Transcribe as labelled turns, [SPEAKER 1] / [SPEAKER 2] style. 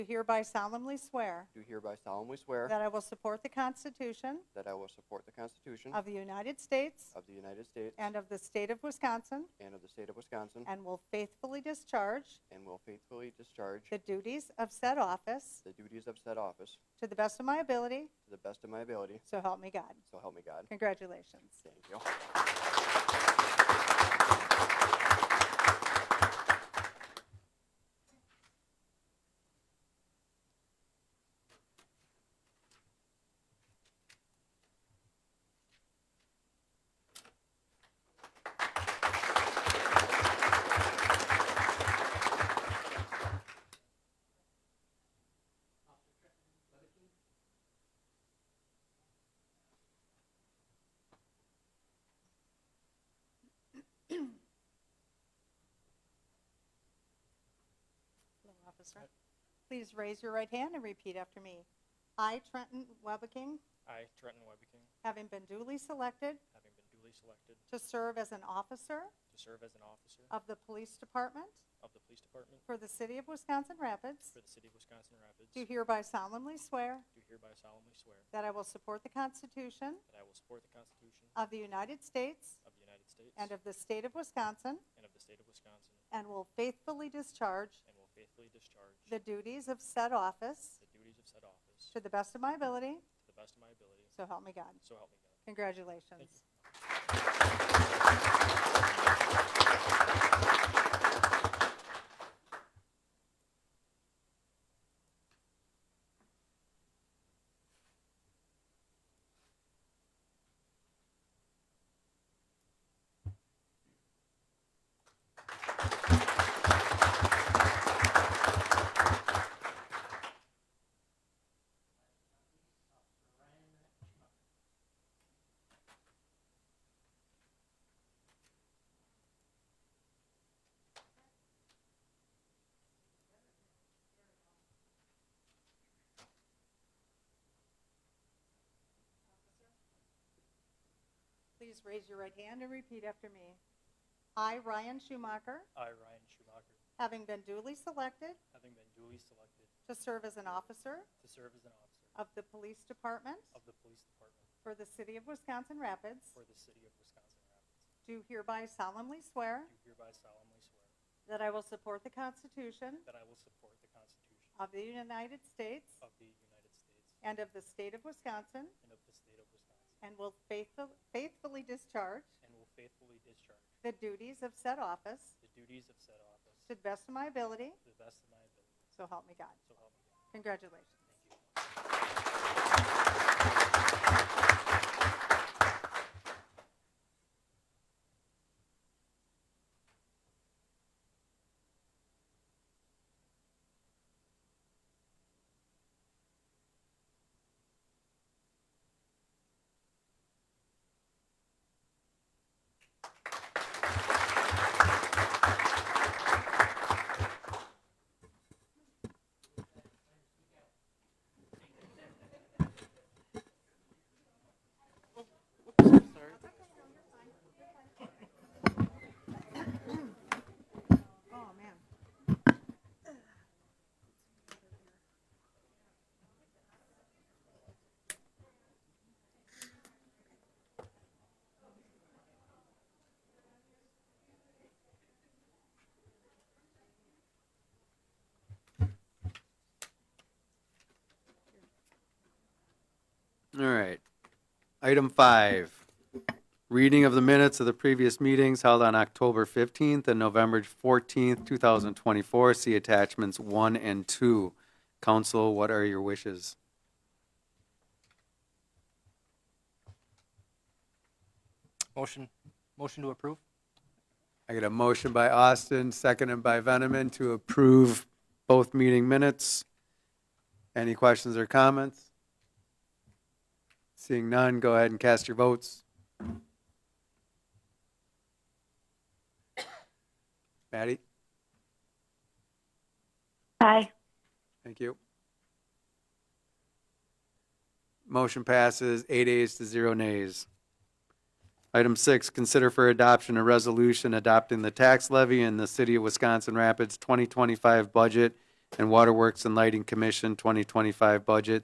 [SPEAKER 1] do hereby solemnly swear
[SPEAKER 2] do hereby solemnly swear
[SPEAKER 1] that I will support the Constitution
[SPEAKER 2] that I will support the Constitution
[SPEAKER 1] of the United States
[SPEAKER 2] of the United States
[SPEAKER 1] and of the state of Wisconsin,
[SPEAKER 2] and of the state of Wisconsin,
[SPEAKER 1] and will faithfully discharge
[SPEAKER 2] and will faithfully discharge
[SPEAKER 1] the duties of said office
[SPEAKER 2] the duties of said office
[SPEAKER 1] to the best of my ability,
[SPEAKER 2] to the best of my ability,
[SPEAKER 1] so help me God.
[SPEAKER 2] so help me God.
[SPEAKER 1] Congratulations.
[SPEAKER 2] Thank you.
[SPEAKER 1] Hello, Officer. Please raise your right hand and repeat after me. I, Trenton Webeking,
[SPEAKER 3] I, Trenton Webbeking,
[SPEAKER 1] having been duly selected
[SPEAKER 3] having been duly selected
[SPEAKER 1] to serve as an officer
[SPEAKER 3] to serve as an officer
[SPEAKER 1] of the Police Department
[SPEAKER 3] of the Police Department
[SPEAKER 1] for the City of Wisconsin Rapids,
[SPEAKER 3] for the City of Wisconsin Rapids,
[SPEAKER 1] do
[SPEAKER 3] do
[SPEAKER 1] hereby solemnly swear
[SPEAKER 3] hereby solemnly swear
[SPEAKER 1] that I will support the Constitution
[SPEAKER 3] that I will support the Constitution
[SPEAKER 1] of the United States
[SPEAKER 3] of the United States
[SPEAKER 1] Oh. and of the state of Wisconsin,
[SPEAKER 3] and of the State of Wisconsin,
[SPEAKER 1] and will faithfully discharge
[SPEAKER 3] and will faithfully discharge
[SPEAKER 1] the duties of said office
[SPEAKER 3] the duties of said office
[SPEAKER 1] to the best of my ability,
[SPEAKER 3] to the best of my ability,
[SPEAKER 1] so help me God.
[SPEAKER 3] so help me God.
[SPEAKER 1] Congratulations. Please raise your right hand and repeat after me. I, Ryan Schumacher,
[SPEAKER 3] I, Ryan Schumacher,
[SPEAKER 1] having been duly selected
[SPEAKER 3] having been duly selected
[SPEAKER 1] to serve as an officer
[SPEAKER 3] to serve as an officer
[SPEAKER 1] of the Police Department
[SPEAKER 3] of the Police Department
[SPEAKER 1] for the City of Wisconsin Rapids,
[SPEAKER 3] for the City of Wisconsin Rapids,
[SPEAKER 1] do hereby solemnly swear
[SPEAKER 3] do hereby solemnly swear
[SPEAKER 1] that I will support the Constitution
[SPEAKER 3] that I will support the Constitution
[SPEAKER 1] of the United States
[SPEAKER 3] of the United States
[SPEAKER 1] and of the state of Wisconsin,
[SPEAKER 3] and of the State of Wisconsin,
[SPEAKER 1] and will faithful- faithfully discharge
[SPEAKER 3] and will faithfully discharge
[SPEAKER 1] the duties of said office
[SPEAKER 3] The duties of said office.
[SPEAKER 1] to the best of my ability,
[SPEAKER 3] To the best of my ability.
[SPEAKER 1] so help me God.
[SPEAKER 3] So help me God.
[SPEAKER 1] Congratulations. Oh, man.
[SPEAKER 4] All right. Item five, reading of the minutes of the previous meetings held on October 15th and November 14th, 2024. See attachments one and two. Council, what are your wishes?
[SPEAKER 5] Motion, motion to approve?
[SPEAKER 4] I get a motion by Austin, seconded by Veneman to approve both meeting minutes. Any questions or comments? Seeing none, go ahead and cast your votes. Maddie,
[SPEAKER 6] Aye.
[SPEAKER 4] thank you. Motion passes eight ayes to zero nays. Item six, consider for adoption a resolution adopting the tax levy in the city of Wisconsin Rapids 2025 budget and Waterworks and Lighting Commission 2025 budget